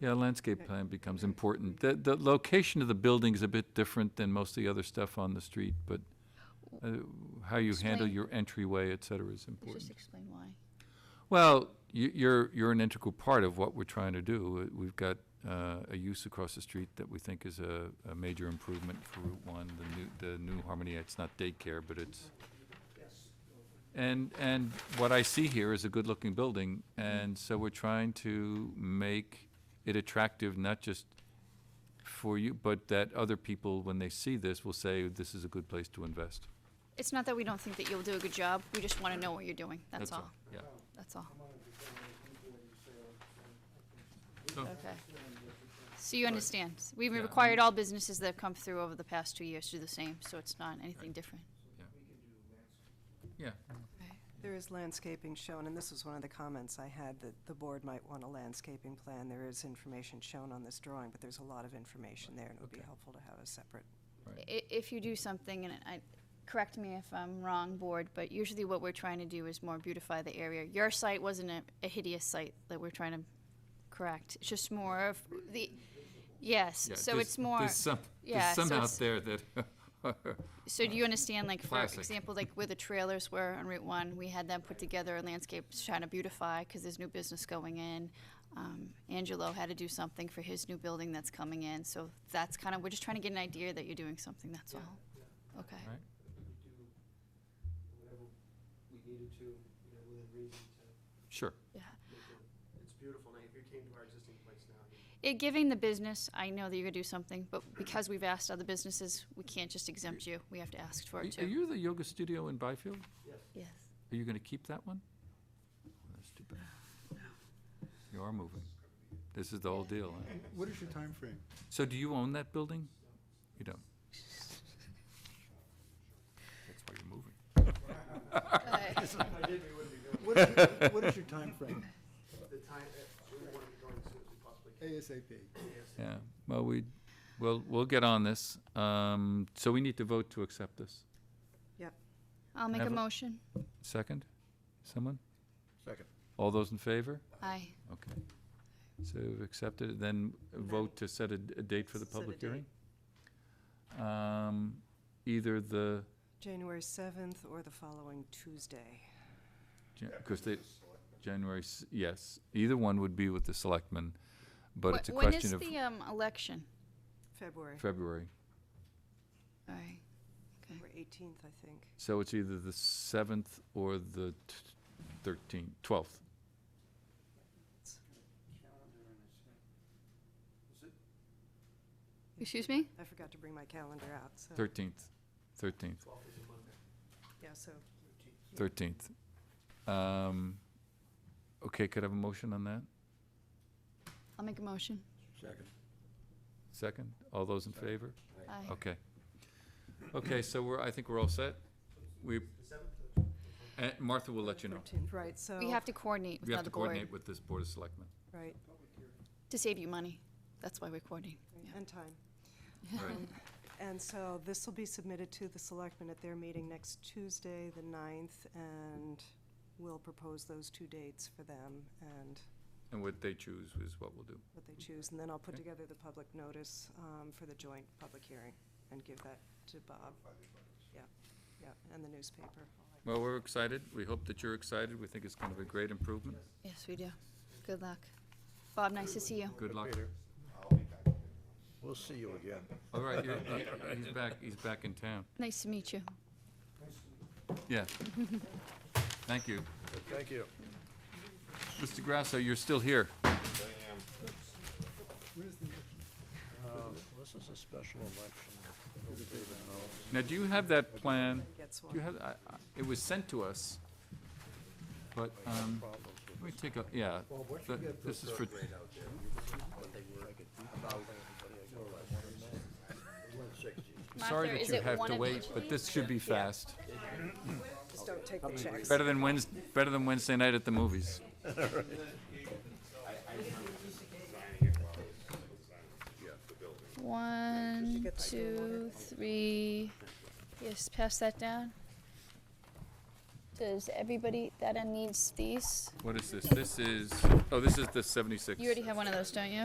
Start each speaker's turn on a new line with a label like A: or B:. A: Yeah, landscape plan becomes important. The, the location of the building is a bit different than most of the other stuff on the street, but uh, how you handle
B: Explain.
A: your entryway, et cetera, is
B: Let's just
A: important.
B: explain why.
A: Well, you, you're, you're an integral part of what we're trying to do. Uh, We've got, uh, a use across the street that we think is a, a major improvement for Route One, the new, the new Harmony, it's not daycare, but it's. And, and what I see here is a good-looking building, and so we're trying to make it attractive, not just for you, but that other people, when they see this, will say, this is a good place to invest.
B: It's not that we don't think that you'll do a good job, we just want to know what you're doing, that's all,
A: Yeah.
B: that's all. Okay. So you understand, S- we've
A: Oh. Yeah, I
B: required all businesses that have come through over the past two years to do the same, so it's not anything different.
A: Yeah,
C: There is landscaping shown, and this was one of the comments I had, that the board might want a landscaping plan. There is information shown on this drawing, but there's a lot of information there, and it would be
A: Okay.
C: helpful to have a separate.
B: I- if you do something, and I, correct me if I'm wrong, board, but usually what we're trying to do is more beautify the area. Your site wasn't a, a hideous site that we're trying to correct, it's just more of the, yes,
A: yeah.
B: so
A: there's-
B: it's more.
A: There's some, there's
B: yeah, so
A: some out
B: it's-
A: there that are
B: So do you understand, like, for
A: Classic.
B: example, like where the trailers were on Route One, we had them put together in landscapes trying to beautify, because there's new business going in. Um, Angelo had to do something for his new building that's coming in, so that's kind of, we're just trying to get an idea that you're doing something, that's all. Okay,
A: Right.
D: whatever we needed to, you know, within reason to
A: Sure.
B: yeah.
D: make it. It's beautiful now, if you came to our existing place now, you
B: It, giving the business, I know that you're gonna do something, but because we've asked other businesses, we can't just exempt you, we have to ask for
A: Are
B: it
A: are
B: too.
A: you the yoga studio in Byfield?
D: yes.
B: Yes.
A: Are you gonna keep that one? Oh, That's too bad. You are moving. This is the whole deal. huh?
E: What is your time frame?
A: So do you own that building? You don't. That's why you're moving.
D: If I did, we wouldn't be doing
E: What is your- what is your timeframe?
D: it. The time, uh, we want to be going as soon as we possibly can.
E: ASAP.
A: Yeah, well, we, well, we'll get on this. Um, so we need to vote to accept this.
B: I'll make a
A: Have a-
B: motion,
A: Second? Someone?
E: Second.
A: All those in favor?
B: aye.
A: Okay. So we've accepted, it. then vote to set a, d- a date for the
C: Set a
A: public
C: date.
A: hearing? Um, either the,
C: January 7th or the following Tuesday.
A: because they, January, s- yes, either one would be with the selectmen, but
B: Wh-
A: it's a question of
B: When is the, um, election?
C: February,
A: February.
B: All right.
C: or 18th, I think.
A: So it's either the seventh or the t- thirteenth, twelfth.
B: Excuse me?
C: I forgot to bring my calendar out,
B: Oh.
C: so.
A: Thirteenth, thirteenth,
C: Yeah, so
A: thirteenth. Um, okay, could I have a motion on that?
B: I'll make a motion.
E: Second.
A: Second? All those in favor?
B: Aye.
A: Okay. Okay, so we're, I think we're all set. We, Uh, Martha will let you know.
C: 13th, right, so,
B: We have to coordinate with
A: We have
B: another
A: to
B: board
A: coordinate with this Board of Selectmen.
C: right,
B: to save you money. That's why we're coordinating. Yeah.
C: and time.
A: Right.
C: And so this will be submitted to the selectmen at their meeting next Tuesday, the 9th, and we'll propose those two dates for them and
A: And what they choose is what we'll do.
C: what they choose. And then I'll put
A: Okay.
C: together the public notice um, for the joint public hearing and give that to Bob. Yeah, yeah, and the newspaper.
A: Well, we're excited. We hope that you're excited. We think it's going to be a great improvement.
B: Yes, we do. Good luck. Bob, nice to see you.
A: Good luck.
E: We'll see you again.
A: All right, you're, uh, he's back, he's back in town.
B: Nice to meet you.
A: Yeah. Thank you.
E: Thank you.
A: Mr. Grasso, you're still here.
E: This is a special election.
A: Now, do you have that plan?
C: Gets
A: You
C: one.
A: had, I, I, it was sent to us, but, um, let me take a, yeah. th- This is for, sorry
B: Martha,
A: that
B: is
A: you
B: it
A: have
B: one
A: to
B: of
A: wait,
B: each
A: but this should be fast.
C: Just don't take the checks.
A: Better than Wednes, better than Wednesday night at the movies.
B: One,
C: get that
B: two, three. Yes, pass that down. Does everybody, that end needs these?
A: What is this? This is, oh, this is the seventy-six.
B: You already have one of those, don't you?